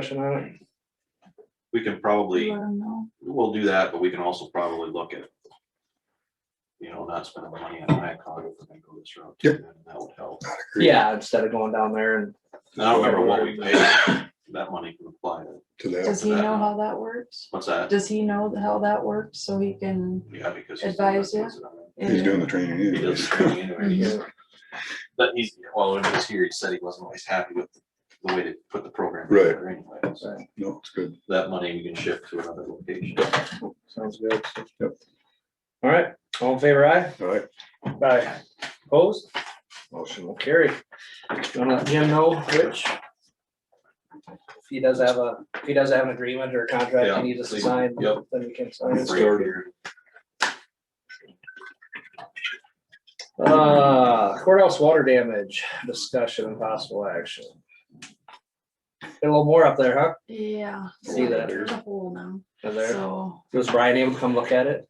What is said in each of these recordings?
discussion on it? We can probably, Let 'em know. we'll do that, but we can also probably look at. You know, not spending the money on Blackhawk if we go this route. too, then That would help. Yeah, instead of going down there and And I don't remember what we paid. That money can apply to, to that. Does he that know now. how that works? what's that? Does he know how that works so he can? Yeah, because. Advise you? He's doing the training He does anyways. the training anyway. He's- But he's, well, when he was here, he said he wasn't always happy with the way to put the program. Right. together Anyway, so No, it's good. that money we can shift to another location. Mm-hmm. sounds good. so. Yep. All right, all in favor, aye? All right, Aye. Opposed? motion. Well, carry. Gonna let Jim know, Rich? If he does have a, if he does have an agreement or a contract Yeah, he needs us to please. sign, Yep. then we can sign it. Bring it here. Uh, courthouse water damage discussion and possible action. Got A little more up there, huh? Yeah. See that. There's a hole now, Up there. so, Was Brian able to come look at it?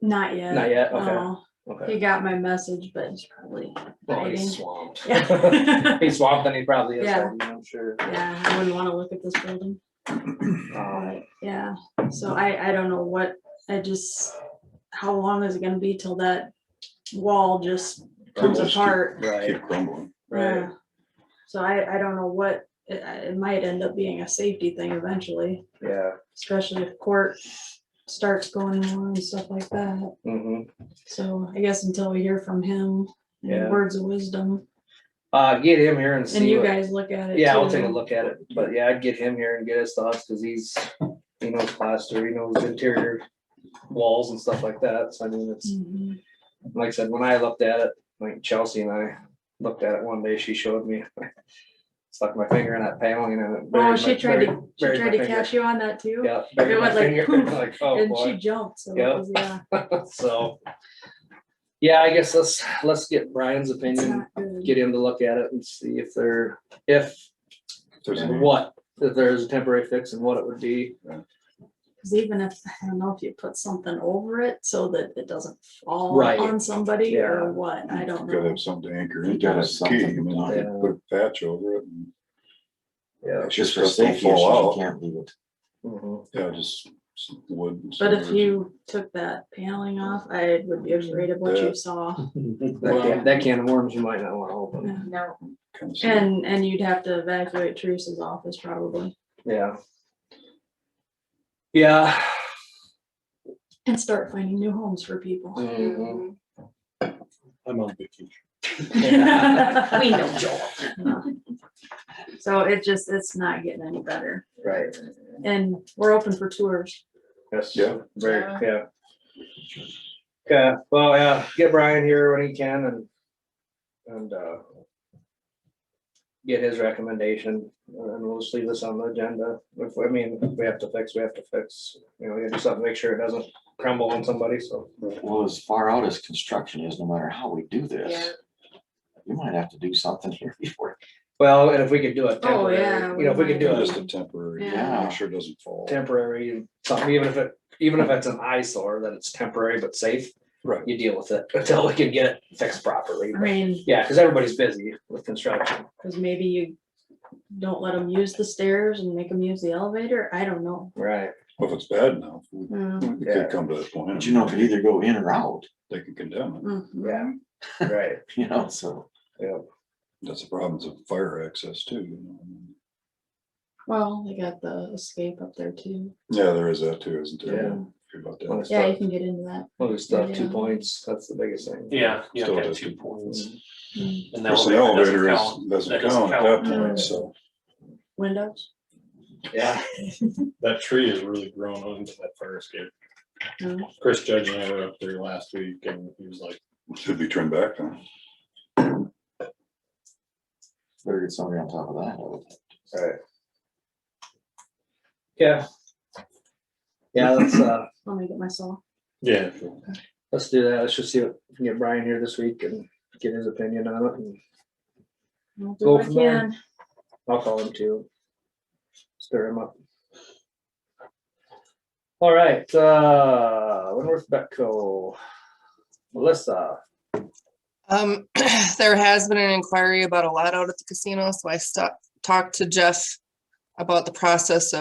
not yet. Not yet? Okay. No. Okay. He got my message, but he's probably Well, he's hiding. swamped. Yeah. He's swamped and he probably is, Yeah. then, I'm sure. Yeah, I wouldn't wanna look at this building, Um, yeah, so I, I don't know what, I just, how long is it gonna be till that wall just comes Crumbles, keep- apart? Right, Keep crumbling. right. Yeah. So I, I don't know what, it, it might end up being a safety thing eventually, Yeah. especially if court starts going on and stuff like that. hmm So I guess until we hear from him, any Yeah. words of wisdom, Uh, get him here and see. and you what- guys look at it. Yeah, I'll too. take a look at it, but yeah, I'd get him here and get his thoughts, cause he's, he knows plaster, he knows interior walls and stuff like that, so I mean, it's, Mhm. like I said, when I looked at it, like Chelsea and I looked at it one day, she showed me. Stuck my finger in that paneling and. it buried Oh, my- she tried buried- to, she buried tried my to finger. catch you on that too? Yeah. buried my It went like finger, poof, Like, oh And she boy, jumped, so it Yeah. was, yeah, so. Yeah, I guess let's, let's get Brian's it's opinion, not good. get him to look at it and see if there, if If There's and any, what, if there's a temporary fix and what it would be. Cause even if, I don't know if you put something over it so that it doesn't fall Right. on somebody Yeah. or what, I don't Gotta know. have something anchor You into gotta have the key, something. and then I Yeah. could put a patch over it and. Yeah. Just for stuff don't safety fall issues, out. you can't leave it. Yeah, just some wood. and But if some- you took that paneling off, I would be afraid of what Yeah. you saw. That can, that can of worms you might not wanna open, No. kind of stuff. And, and you'd have to evacuate Teresa's office probably yeah. Yeah, and start finding new homes for people. Mhm. I'm on vacation. We know Joel. So it just, it's not getting any better. right, And we're open for tours. yes. Yeah. Very, yeah. Okay, well, yeah, get Brian here when he can and, and, uh, get his recommendation, uh, and we'll just leave this on the agenda, if, I mean, if we have to fix, we have to fix, you know, we have to do something, to make sure it doesn't crumble on somebody, so. Well, as far out as construction is, no matter how we do this, you might have to do something here before. Well, and if we could do it Oh, temporary, yeah, you know, if we could do it Just a temporary, Yeah. make sure it doesn't fall. temporary, something, even if it, even if it's an eyesore, that it's temporary but safe, Right. you deal with it until we can get it fixed properly. I mean, Yeah, because everybody's busy with construction. cause maybe you don't let them use the stairs and make them use the elevator. I don't know. Right. Well, If it's bad enough, we Mm, we Yeah. could come to that point. But you know, it could either go in or out, They can condemn it. mhm. Yeah. Right, you know, so. yeah, That's the problems of fire access too. you know, I mean. Well, they got the escape up there too. Yeah, there is that too, isn't there? Yeah. Forget About Well, that. it's Yeah, not- you can get into that. well, there's stuff, two Yeah. points, that's the biggest thing. Yeah, you Still have to have does two it. points. Mm, And the Plus, the doesn't elevator is, count. doesn't That doesn't count at that count. Mm. point, so. Windows? Yeah, That tree has really grown onto that fire escape. No. Chris Judge and I were up there last week and he was like, Should be turned back then. Better get somebody on top of that. I would think. right. Yeah. Yeah, let's, uh, Let me get myself. yeah. let's do that, let's just see what, get Brian here this week and get his opinion on it, and I'll do Go what I from there. can. I'll call him too. Stir him up. All right, uh, Winworth Betco. Melissa, Um, there has been an inquiry about a lot out at the casino, so I stopped, talked to Jeff about the process of.